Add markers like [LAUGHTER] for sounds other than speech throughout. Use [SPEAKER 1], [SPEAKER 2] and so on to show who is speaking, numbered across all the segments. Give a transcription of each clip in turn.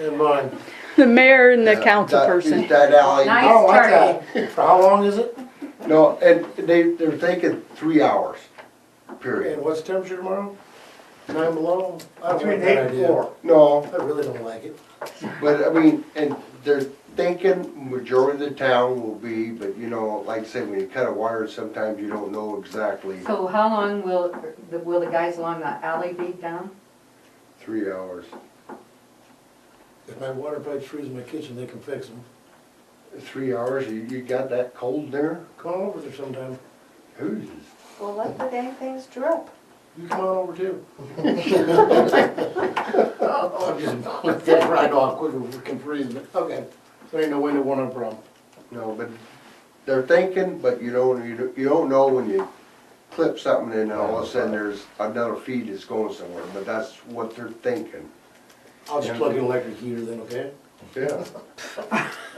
[SPEAKER 1] in mind.
[SPEAKER 2] The mayor and the
[SPEAKER 3] Yeah,
[SPEAKER 2] council
[SPEAKER 3] that-
[SPEAKER 2] person.
[SPEAKER 3] That alley,
[SPEAKER 4] Nice.
[SPEAKER 1] I don't like that. For how long is it?
[SPEAKER 3] no, and they, they're thinking three hours,
[SPEAKER 1] And
[SPEAKER 3] period.
[SPEAKER 1] what's temperature tomorrow? Nine below? I don't like
[SPEAKER 5] Between
[SPEAKER 1] that
[SPEAKER 5] eight and
[SPEAKER 1] idea.
[SPEAKER 5] four.
[SPEAKER 3] No,
[SPEAKER 1] I really don't like it.
[SPEAKER 3] but I mean, and they're thinking majority of the town will be, but you know, like I say, when you cut a wire, sometimes you don't know exactly
[SPEAKER 4] So how long will, the- will the guys along the alley be down?
[SPEAKER 3] three hours.
[SPEAKER 1] If my water pipes freeze in my kitchen, they can fix them.
[SPEAKER 3] Three hours, you, you got that cold there?
[SPEAKER 1] Come on over there sometime.
[SPEAKER 3] Who's?
[SPEAKER 6] Well, let the dang things drip.
[SPEAKER 1] You come on over [LAUGHS] too.
[SPEAKER 5] I'll just let that ride off quicker if we can freeze it.
[SPEAKER 1] Okay. There ain't no way to one on problem.
[SPEAKER 3] No, but they're thinking, but you don't, you don't- you don't know when you clip something and all of a sudden there's another feed that's going somewhere, but that's what they're thinking.
[SPEAKER 1] I'll just plug in electric heater then, okay?
[SPEAKER 3] Yeah.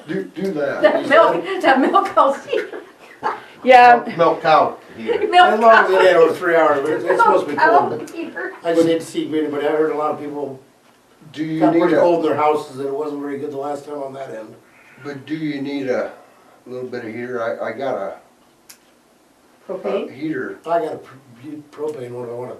[SPEAKER 3] Do, do
[SPEAKER 4] [LAUGHS] That
[SPEAKER 3] that.
[SPEAKER 4] milk, that milk house, [LAUGHS]
[SPEAKER 2] Yeah,
[SPEAKER 3] Milk cow here.
[SPEAKER 1] As
[SPEAKER 4] milk
[SPEAKER 1] long as
[SPEAKER 4] house.
[SPEAKER 1] it ain't over three hours, but it's it's supposed to be cold.
[SPEAKER 4] Peter.
[SPEAKER 1] I just hate to see anybody, I heard a lot of people
[SPEAKER 3] Do you
[SPEAKER 1] got
[SPEAKER 3] need
[SPEAKER 1] pretty
[SPEAKER 3] a,
[SPEAKER 1] cold in their houses and it wasn't very good the last time on that end.
[SPEAKER 3] but do you need a little bit of heater? I, I got a- a
[SPEAKER 4] Propane?
[SPEAKER 3] heater.
[SPEAKER 1] I got a pr- bu- propane one I wanna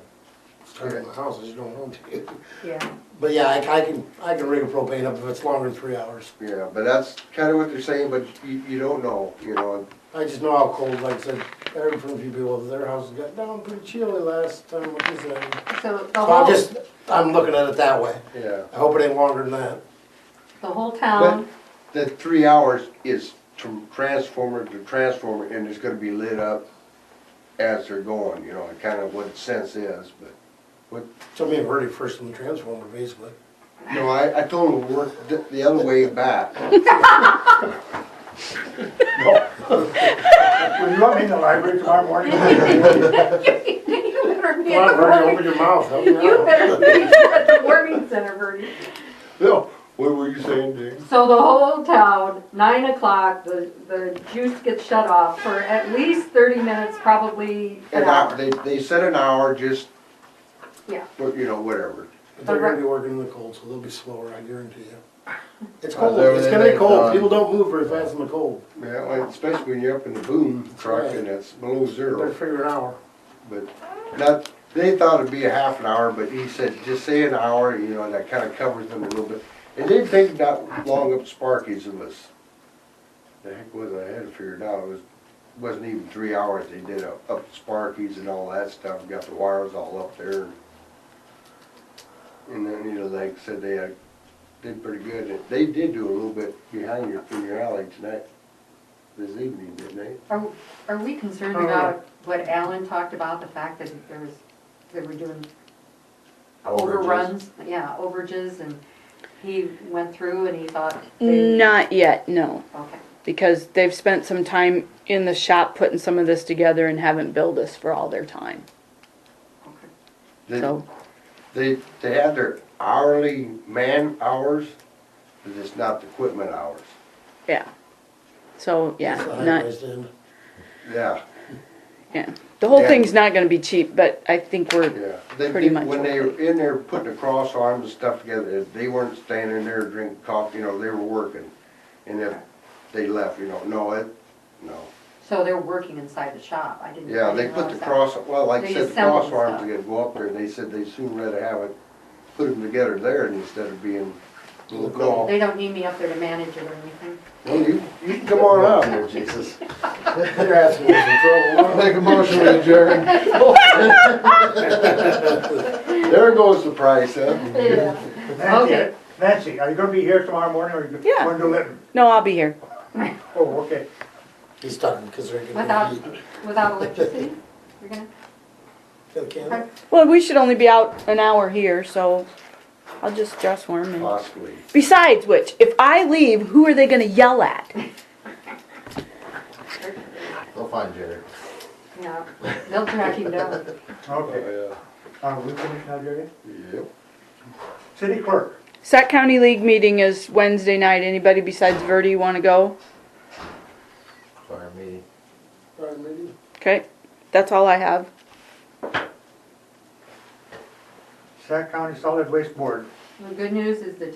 [SPEAKER 1] start in my house, I just don't want to. [LAUGHS]
[SPEAKER 4] Yeah.
[SPEAKER 1] But yeah, I, I can, I can rig a propane up if it's longer than three hours.
[SPEAKER 3] Yeah, but that's kinda what they're saying, but you, you don't know, you know,
[SPEAKER 1] I just know how cold, like I said, I heard from a few people, that their houses got down pretty chilly last time with this end.
[SPEAKER 4] So
[SPEAKER 1] So
[SPEAKER 4] the
[SPEAKER 3] Uh-huh.
[SPEAKER 1] I'm
[SPEAKER 4] whole,
[SPEAKER 1] just, I'm looking at it that way.
[SPEAKER 3] yeah.
[SPEAKER 1] I hope it ain't longer than that.
[SPEAKER 4] the whole town,
[SPEAKER 3] The three hours is from transformer to transformer and it's gonna be lit up as they're going, you know, kinda what the sense is, but.
[SPEAKER 1] So me and Verdi first in the transformer, basically.
[SPEAKER 3] No, I, I told him to work the, the other way [LAUGHS] back.
[SPEAKER 5] Will you let me in the library tomorrow
[SPEAKER 4] [LAUGHS]
[SPEAKER 5] morning?
[SPEAKER 4] you better be
[SPEAKER 1] Come
[SPEAKER 4] at the
[SPEAKER 1] on, Verdi, open
[SPEAKER 3] [LAUGHS]
[SPEAKER 4] warming,
[SPEAKER 1] your mouth, help me
[SPEAKER 4] you
[SPEAKER 1] out.
[SPEAKER 4] better be at the warming center, Bertie.
[SPEAKER 3] No, what were you saying, Dick?
[SPEAKER 4] So the whole town, nine o'clock, the, the juice gets shut off for at least thirty minutes, probably an
[SPEAKER 3] An hour,
[SPEAKER 4] hour.
[SPEAKER 3] they, they said an hour, just.
[SPEAKER 4] Yeah.
[SPEAKER 3] But, you know, whatever.
[SPEAKER 1] But they're gonna be working in the cold, so they'll be slower, I guarantee you. It's
[SPEAKER 3] Uh,
[SPEAKER 1] cold,
[SPEAKER 3] they're-
[SPEAKER 1] it's gonna um, be
[SPEAKER 3] they're
[SPEAKER 1] cold,
[SPEAKER 3] done.
[SPEAKER 1] people don't move very fast in the cold.
[SPEAKER 3] Yeah, like, especially when you're up in the boom truck and it's below
[SPEAKER 1] Better
[SPEAKER 3] zero,
[SPEAKER 1] figure an hour.
[SPEAKER 3] but not, they thought it'd be a half an hour, but he said, just say an hour, you know, and that kinda covers them a little bit. It didn't take that long up Sparky's, it was, the heck was it, I had it figured out, it was, wasn't even three hours they did up, up Sparky's and all that stuff, got the wires all up there. And then, you know, like I said, they uh, did pretty good, they did do a little bit behind your, in your alley tonight, this evening, didn't they?
[SPEAKER 4] Are, are we
[SPEAKER 3] Oh,
[SPEAKER 4] concerned
[SPEAKER 1] Uh-huh.
[SPEAKER 4] about what Alan talked about, the fact that there was, they were doing overruns? Yeah, overages, and he went through and he thought. they-
[SPEAKER 2] not yet, no,
[SPEAKER 4] Okay,
[SPEAKER 2] because they've spent some time in the shop putting some of this together and haven't billed us for all their time,
[SPEAKER 4] okay.
[SPEAKER 3] They-
[SPEAKER 2] so.
[SPEAKER 3] They, they have their hourly man hours, but it's not the equipment hours.
[SPEAKER 2] Yeah. So, yeah,
[SPEAKER 1] It's the
[SPEAKER 2] not,
[SPEAKER 1] high-priced end.
[SPEAKER 3] Yeah,
[SPEAKER 2] yeah. The whole
[SPEAKER 3] Yeah.
[SPEAKER 2] thing's not gonna be cheap, but I think we're,
[SPEAKER 3] yeah. They-
[SPEAKER 2] Pretty
[SPEAKER 3] they-
[SPEAKER 2] much
[SPEAKER 3] When
[SPEAKER 2] what
[SPEAKER 3] they were in there putting the cross arms and stuff together, they weren't standing there drinking coffee, you know, they were working. And if they left, you know, no, it, no.
[SPEAKER 4] So they're working inside the shop, I didn't.
[SPEAKER 3] Yeah,
[SPEAKER 4] I
[SPEAKER 3] they
[SPEAKER 4] didn't
[SPEAKER 3] put the
[SPEAKER 4] notice that.
[SPEAKER 3] cross, well, like I
[SPEAKER 4] They
[SPEAKER 3] said, the
[SPEAKER 4] assembled
[SPEAKER 3] cross arms
[SPEAKER 4] stuff.
[SPEAKER 3] are gonna go up there, and they said they'd soon rather have it, put them together there instead of being little golf.
[SPEAKER 4] They don't need me up there to manage it or anything.
[SPEAKER 3] Well, you, you can come on up here, Jesus.
[SPEAKER 1] They're asking me some trouble.
[SPEAKER 3] Make a motion to adjourn. There goes the price, huh?
[SPEAKER 4] Okay.
[SPEAKER 5] Nancy, Nancy, are you gonna be here tomorrow morning or you
[SPEAKER 2] Yeah.
[SPEAKER 5] going to Litton?
[SPEAKER 2] no, I'll be here.
[SPEAKER 5] Oh, okay.
[SPEAKER 1] He's talking, cause they're gonna
[SPEAKER 4] Without,
[SPEAKER 1] be heat.
[SPEAKER 4] without electricity? You're gonna,
[SPEAKER 1] Got a candle?
[SPEAKER 2] Well, we should only be out an hour here, so I'll just dress warm and.
[SPEAKER 3] Possibly.
[SPEAKER 2] Besides which, if I leave, who are they gonna yell at?
[SPEAKER 3] They'll find Jerry.
[SPEAKER 4] yeah, they'll track him down.
[SPEAKER 5] Okay.
[SPEAKER 3] Yeah.
[SPEAKER 5] Uh, we finished now, Jerry?
[SPEAKER 3] Yep.
[SPEAKER 5] City clerk,
[SPEAKER 2] Sac County League meeting is Wednesday night. Anybody besides Verdi wanna go?
[SPEAKER 3] Fire meeting.
[SPEAKER 1] Pardon me?
[SPEAKER 2] Okay, that's all I have.
[SPEAKER 5] Sac County Solid Waste Board.
[SPEAKER 4] The good news is the